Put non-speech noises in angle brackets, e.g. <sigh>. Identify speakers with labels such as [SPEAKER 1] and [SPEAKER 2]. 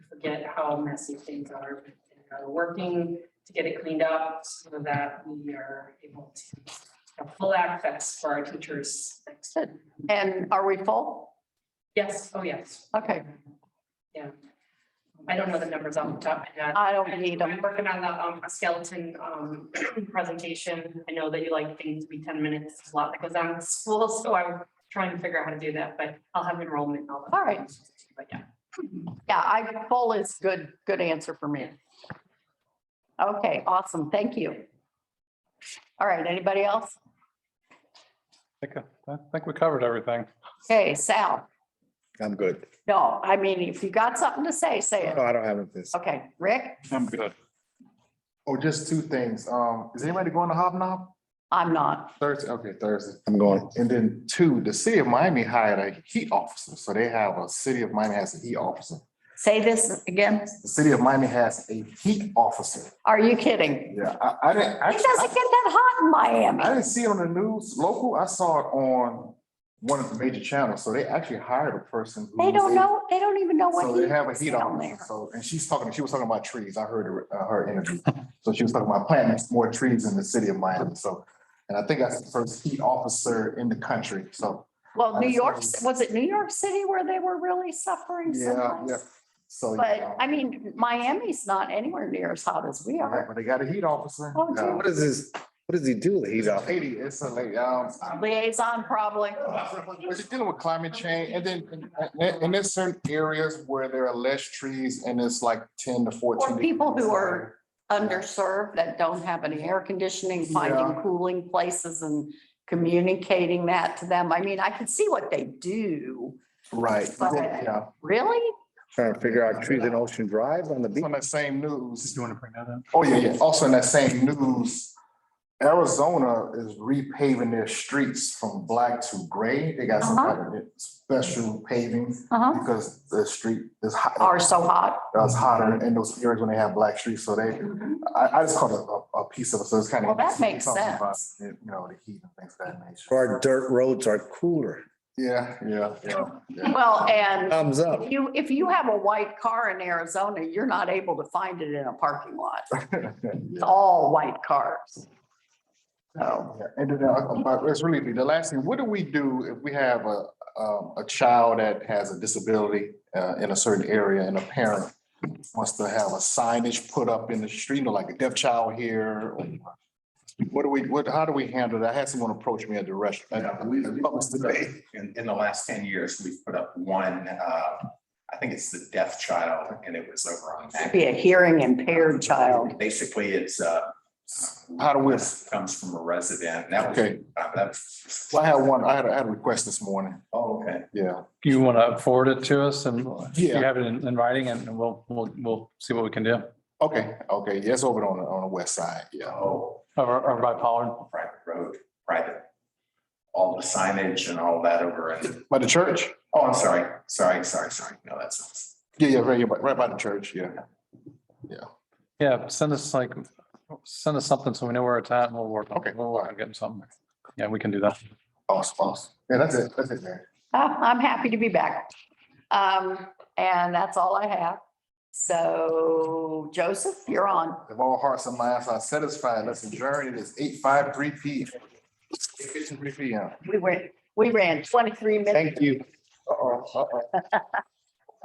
[SPEAKER 1] forget how messy things are, and are working to get it cleaned up so that we are able to have full access for our teachers.
[SPEAKER 2] Good. And are we full?
[SPEAKER 1] Yes, oh, yes,
[SPEAKER 2] Okay,
[SPEAKER 1] I don't know the numbers off the top of my head.
[SPEAKER 2] I don't need them.
[SPEAKER 1] I'm working on the um, skeleton um, <clears throat> presentation. I know that you like things to be ten minutes, There's a lot that goes on in <laughs> school, so I'm trying to figure out how to do that, but I'll have enrollment. and that.
[SPEAKER 2] All right.
[SPEAKER 1] But yeah,
[SPEAKER 2] Yeah, I, full is good, good answer for me. Okay, awesome. Thank you. All right, anybody else?
[SPEAKER 3] think, I think we covered everything.
[SPEAKER 2] Okay, Sal.
[SPEAKER 4] I'm good.
[SPEAKER 2] No, I mean, if you got something to say, say it.
[SPEAKER 4] No, I don't have anything. to say.
[SPEAKER 2] Okay, Rick,
[SPEAKER 3] I'm good.
[SPEAKER 5] Oh, just two things. Um, is anybody going to Hobnob
[SPEAKER 2] I'm not.
[SPEAKER 5] Thursday? Okay, Thursday.
[SPEAKER 4] I'm going.
[SPEAKER 5] And then two, the city of Miami hired a heat officer. So they have a city of Miami has a heat officer.
[SPEAKER 2] Say this again.
[SPEAKER 5] The city of Miami has a heat officer.
[SPEAKER 2] Are you kidding?
[SPEAKER 5] Yeah, I, I didn't,
[SPEAKER 2] It doesn't get
[SPEAKER 5] I,
[SPEAKER 2] that hot in
[SPEAKER 5] I
[SPEAKER 2] Miami.
[SPEAKER 5] didn't see it on the news local. I saw it on one of the major channels. So they actually hired a person. who
[SPEAKER 2] They
[SPEAKER 5] was
[SPEAKER 2] don't
[SPEAKER 5] a-
[SPEAKER 2] know, they don't even know
[SPEAKER 5] So
[SPEAKER 2] what
[SPEAKER 5] they
[SPEAKER 2] heat
[SPEAKER 5] have a
[SPEAKER 2] is
[SPEAKER 5] heat
[SPEAKER 2] down
[SPEAKER 5] officer.
[SPEAKER 2] there.
[SPEAKER 5] So, and she's talking, she was talking about trees. I heard her, uh, her interview. So she was talking about planting more trees in the city of Miami. So, and I think that's the first heat officer in the country. So,
[SPEAKER 2] Well, New
[SPEAKER 5] Honestly,
[SPEAKER 2] York,
[SPEAKER 5] it's-
[SPEAKER 2] was it New York City where they were really suffering so
[SPEAKER 5] Yeah,
[SPEAKER 2] much?
[SPEAKER 5] yeah. so.
[SPEAKER 2] But
[SPEAKER 5] yeah.
[SPEAKER 2] I mean, Miami's not anywhere near as hot as we
[SPEAKER 5] Yeah,
[SPEAKER 2] are.
[SPEAKER 5] But they got a heat officer.
[SPEAKER 2] Oh,
[SPEAKER 5] Yeah.
[SPEAKER 4] What is this? What does he do?
[SPEAKER 5] It's
[SPEAKER 4] He's
[SPEAKER 5] a
[SPEAKER 4] off.
[SPEAKER 5] lady, it's a lady, um.
[SPEAKER 2] Liaison probably.
[SPEAKER 5] But you're dealing with climate change and then, and, and there's certain areas where there are less trees and it's like ten to fourteen.
[SPEAKER 2] Or people who
[SPEAKER 5] degrees.
[SPEAKER 2] are underserved that don't have any air conditioning, finding
[SPEAKER 5] Yeah.
[SPEAKER 2] cooling places and communicating that to them. I mean, I can see what they do.
[SPEAKER 5] Right, yeah.
[SPEAKER 2] Really?
[SPEAKER 4] Trying to figure out trees in Ocean Drive on the
[SPEAKER 5] It's
[SPEAKER 4] beach.
[SPEAKER 5] On that same news.
[SPEAKER 3] want to bring that up?
[SPEAKER 5] Oh, yeah, yeah. Also in that same news, Arizona is repaving their streets from black to gray. They got some
[SPEAKER 2] Uh-huh.
[SPEAKER 5] kind of special paving
[SPEAKER 2] Uh-huh.
[SPEAKER 5] because the street is hot, uh,
[SPEAKER 2] Are so hot.
[SPEAKER 5] it's hotter in those areas when they have black streets. So they, I, I just caught a, a, a piece of it. So it's kind of.
[SPEAKER 2] Well, that makes sense.
[SPEAKER 5] You know, the heat and things of that nature.
[SPEAKER 4] Our dirt roads are cooler.
[SPEAKER 5] Yeah, yeah, yeah. yeah.
[SPEAKER 2] Well, and
[SPEAKER 4] Thumbs up.
[SPEAKER 2] if you, if you have a white car in Arizona, you're not able to find it in a parking lot. It's
[SPEAKER 5] Yeah.
[SPEAKER 2] all white cars. So,
[SPEAKER 5] Yeah, And then, uh, about- it's really the last thing, what do we do if we have a, um, a child that has a disability uh, in a certain area and a parent wants to have a signage put up in the street, you know, like a deaf child here? or- What do we, what, how do we handle that? I had someone approach me at the restaurant.
[SPEAKER 6] Yeah, we- we-
[SPEAKER 5] What was the debate?
[SPEAKER 6] In, in the last ten years, we've put up one, uh, I think it's the deaf child, and it was over on. Mac.
[SPEAKER 2] be a hearing impaired child.
[SPEAKER 6] Basically, it's, uh.
[SPEAKER 5] How do we-
[SPEAKER 6] Comes from a resident, and that was,
[SPEAKER 5] Okay,
[SPEAKER 6] uh, that was.
[SPEAKER 5] well, I had one, I had, I had a request this morning,
[SPEAKER 6] Oh, okay.
[SPEAKER 5] yeah.
[SPEAKER 3] You want to forward it to us and you
[SPEAKER 5] Yeah.
[SPEAKER 3] have it in in writing and we'll, we'll, we'll see what we can do.
[SPEAKER 5] Okay, okay, yes, over on, the on the west side, yeah.
[SPEAKER 6] Oh,
[SPEAKER 3] Or, or by Pollard.
[SPEAKER 6] private road, private. All the signage and all that over in,
[SPEAKER 5] By the church?
[SPEAKER 6] oh, I'm sorry, sorry, sorry, sorry. No, that's.
[SPEAKER 5] Yeah, yeah, right, yeah, right by the church, yeah.
[SPEAKER 3] Yeah, send us like, send us something so we know where it's at and we'll work. on-
[SPEAKER 5] Okay.
[SPEAKER 3] We'll work on getting something. Yeah, we can do that.
[SPEAKER 5] Awesome, awesome. Yeah, that's it, that's it, man.
[SPEAKER 2] Uh, I'm happy to be back. Um, and that's all I have. So Joseph, you're on.
[SPEAKER 5] If all hearts and minds are satisfied, let's adjourn. It is eight five three P. Three P M.
[SPEAKER 2] We went, we ran twenty-three minutes.
[SPEAKER 5] Thank you. Uh-oh, uh-oh.